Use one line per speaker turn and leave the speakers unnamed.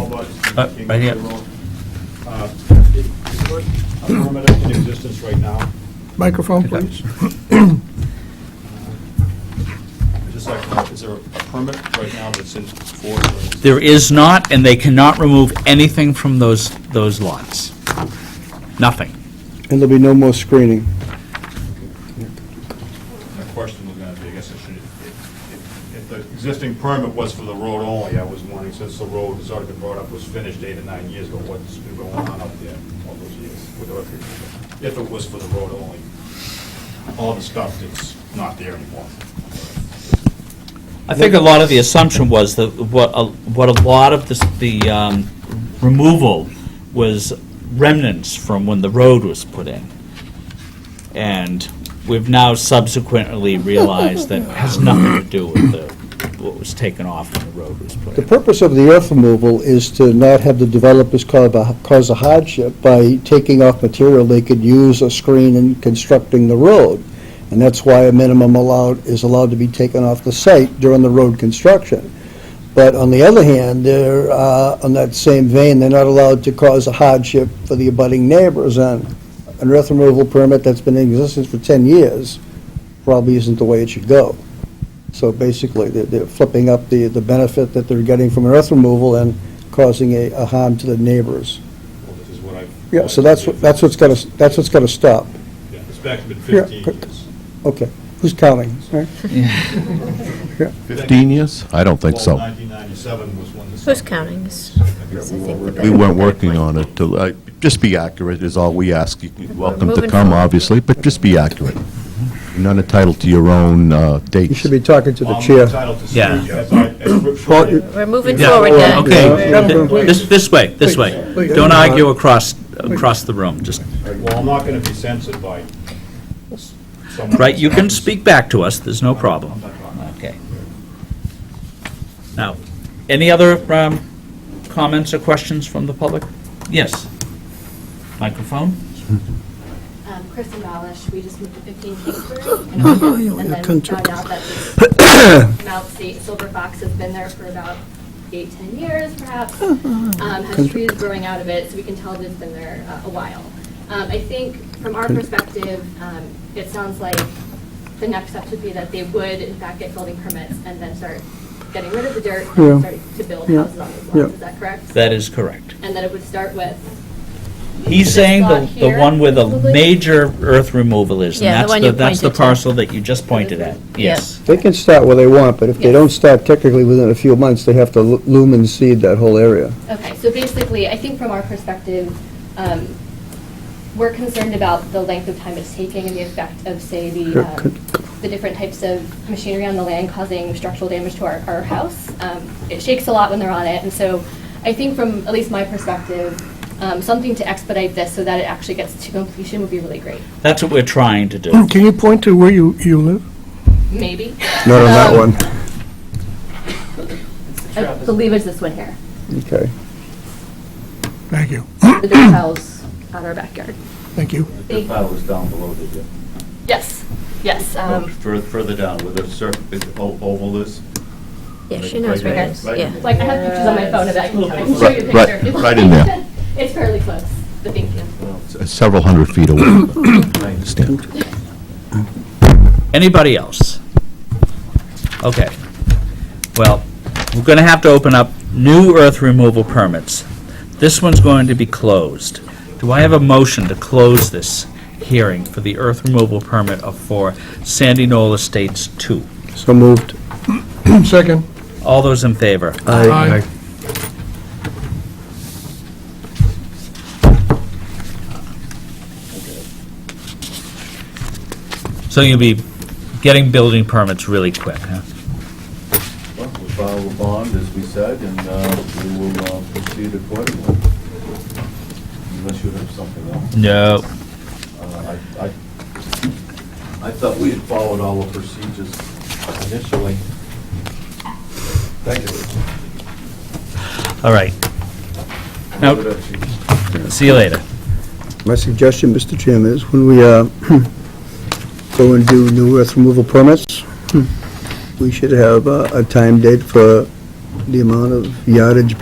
Uh,
King
right here.
Highway Road. Uh, is- Is there a permit in existence right now?
Microphone,
Okay.
please.
I'd Just like, to know, is there a permit right now that's in force? or-
There is not, and they cannot remove anything from those, those lots. Nothing.
And there'll be no more screening.
My question was gonna be, I guess I should, if, if- if the existing permit was for the road only, I was wondering, since the road has already been brought up, was finished eight or nine years ago, what's been going on up there all those years? with the record? If it was for the road only, all the stuff that's not there anymore.
I think a lot of the assumption was that what, a- what a lot of this- the um, removal was remnants from when the road was put in. And we've now subsequently realized that it has nothing to do with the, what was taken off when the road was put
The
in.
purpose of the earth removal is to not have the developers cause a cause a hardship by taking off material they could use or screen in constructing the road. And that's why a minimum allowed, is allowed to be taken off the site during the road construction. But on the other hand, they're, uh, on that same vein, they're not allowed to cause a hardship for the abutting neighbors. And an earth removal permit that's been in existence for 10 years probably isn't the way it should go. So basically, they're- they're flipping up the, the benefit that they're getting from earth removal and causing a, a harm to the neighbors.
Well, this is what I've-
Yeah, so that's, what that's what's gotta, s- that's what's gotta stop.
Yeah, It's back been fifteen
Yeah.
years.
Okay, who's counting? All right.
15 years? I don't think
Well,
so.
1997 was when this.
Who's counting? Is- is, I think, the
We
better-
weren't working on it to, uh, just be accurate is all we ask. You're Welcome to
Moving
come,
forward.
obviously, but just be accurate. You're not entitled to your own uh, dates.
You should be talking to the
I'm
chair.
entitled to speak
Yeah.
as I- as-
Paul, you-
We're moving
Yeah. oh,
forward now.
Okay,
Yeah.
th- this, this way, this way.
Please.
Don't argue across, across the room, just,
Well, I'm not gonna be censored by s- someone.
right, you can speak back to us, there's no problem.
I'm not talking.
Okay. Now, any other um, comments or questions from the public? Yes. Microphone?
Um, Chris and Balish, we just moved to 15 Kingsbury. And
Oh,
we- and then found out that this Mount State Silver Fox has been there for about eight, 10 years perhaps.
Uh-huh.
Um, Has trees growing out of it, so we can tell that it's been there uh, a while. Um, I think from our perspective, um, it sounds like the next step should be that they would in fact get building permits and then start getting rid of the dirt
Yeah.
and start to build houses on those
Yeah.
lots. Is that correct?
That is correct.
And that it would start with
He's
This
saying the,
lot
the
here,
one where the
probably?
major earth removal is,
Yeah, the
and that's
one
the,
you
that's the
pointed to.
parcel that you just pointed at, yes.
They can start where they want, but if they
Yes.
don't start technically within a few months, they have to lu- lumen seed that whole area.
Okay, so basically, I think from our perspective, um, we're concerned about the length of time it's taking and the effect of, say, the,
Could-
um, the different types of machinery on the land causing structural damage to our, our house. Um, It shakes a lot when they're on it, and so I think from, at least my perspective, um, something to expedite this so that it actually gets to completion would be really great.
That's what we're trying to do.
Can you point to where you, you live?
Maybe.
Not on that one.
I believe it's this one here,
Okay.
Thank you,
the dirt piles out our backyard.
thank you.
They-
That was down below, did you?
Yes, yes. um,
Further, further down, where the circle, oval is?
Yeah, she knows where it is,
Right.
yeah.
Like, I have pictures on my phone of it, I can I can show you a
Right, right,
picture. if you
right
like.
in there.
It's fairly close, but thank you.
um,
S- Several hundred feet away. I understand.
Anybody else? Okay. Well, we're going to have to open up new earth removal permits. This one's going to be closed. Do I have a motion to close this hearing for the earth removal permit of for Sandy Knoll Estates 2?
So moved.
Second.
All those in favor?
Aye.
So you'll be getting building permits really quick, huh?
Well, We filed a bond, as we said, and uh, we will uh, proceed accordingly. Unless you have something else.
No.
Uh, I, I I thought we had followed all the procedures initially. Thank you.
All right. Now- See you later.
My suggestion, Mr. Chairman, is when we uh, go and do new earth removal permits, we should have uh, a time date for the amount of yardage